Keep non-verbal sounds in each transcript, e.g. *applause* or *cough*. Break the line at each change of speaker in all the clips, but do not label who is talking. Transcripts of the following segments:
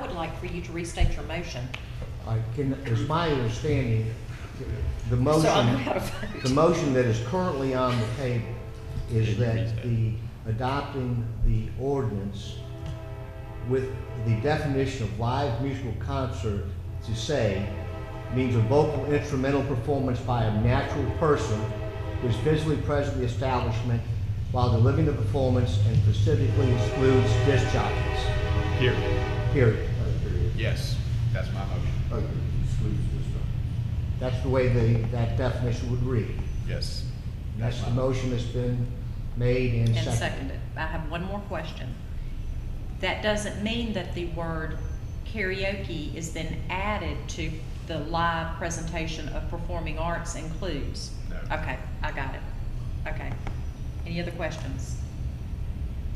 would like for you to restate your motion.
I can, it's my understanding,
So I
the
know
motion,
how to vote.
the motion that is currently on the table is that the, adopting the ordinance with the definition of live musical concert to say means a vocal instrumental performance by a natural person who is physically present in the establishment while delivering the performance and specifically excludes disc jockeys,
Here.
period.
Yes, that's my motion.
That's the way the, that definition would read.
Yes.
That's the motion that's been made and
And
seconded.
second it. I have one more question. That doesn't mean that the word karaoke is then added to the live presentation of performing arts includes?
No.
Okay, I got it. Okay. Any other questions?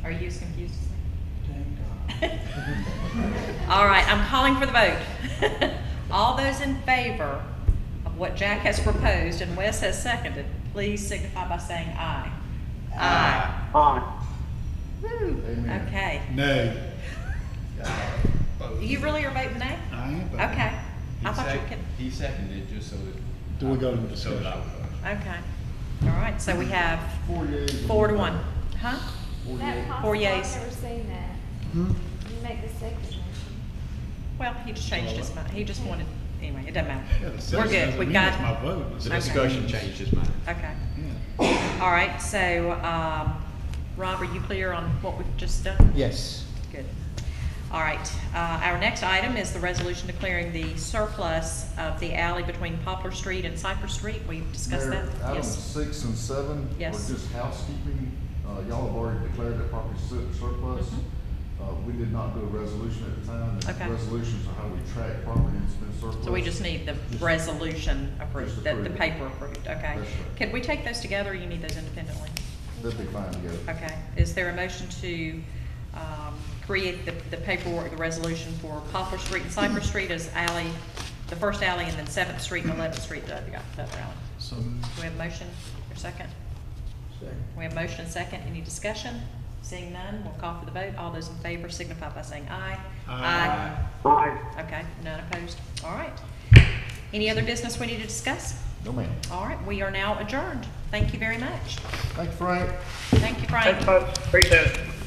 Are you as confused as me? *laughs* All right, I'm calling for the vote. *laughs* All those in favor of what Jack has proposed and Wes has seconded, please signify by saying aye. Aye. Woo, okay.
No.
You really are voting nay?
I am. voting.
Okay. I thought you
He
were
sec-
kidding.
He seconded it just so that.
Do we go to
So that I
discussion?
would.
Okay. All right, so we have
Four yeas and
four to one. Huh?
Four
That
yeas.
possible,
yeas.
I've never seen that.
Hmm?
You make the second motion.
Well, he just changed his mind. He just wanted, anyway, it doesn't
Yeah, the
matter. We're
sentence
good.
doesn't
We
mean
got
that's my vote.
The
Okay.
sentence
discussion
means-
changed his mind.
Okay.
Yeah.
All right, so, um, Rob, are you clear on what we've just done?
Yes.
Good. All right, uh, our next item is the resolution declaring the surplus of the alley between Poplar Street and Cypress Street. We've discussed
Mayor,
that.
Items
Yes.
six and seven are
Yes.
just housekeeping. Uh, y'all have already declared that property su- surplus.
Mhm.
Uh, we did not do a resolution at the time. The
Okay.
Resolutions are how we track property that's been surplus.
So we just need the
Just-
resolution approved,
just
the, the
approve it.
paper approved, okay?
That's right.
Could we take those together, or you need those independently?
They'll be fine together.
Okay, is there a motion to, um, create the, the paperwork, the resolution for Poplar Street and Cypress Street as alley, the first alley, and then Seventh Street and Eleventh Street, the other, the other alley?
So,
Do we have a motion, or second? We have motion and second. Any discussion? Seeing none, we'll call for the vote. All those in favor signify by saying aye.
Aye.
Aye. Okay, none opposed. All right. Any other business we need to discuss?
No, ma'am.
All right, we are now adjourned. Thank you very much.
Thank you, Frank.
Thank you, Frank.
Thanks, folks. Appreciate it.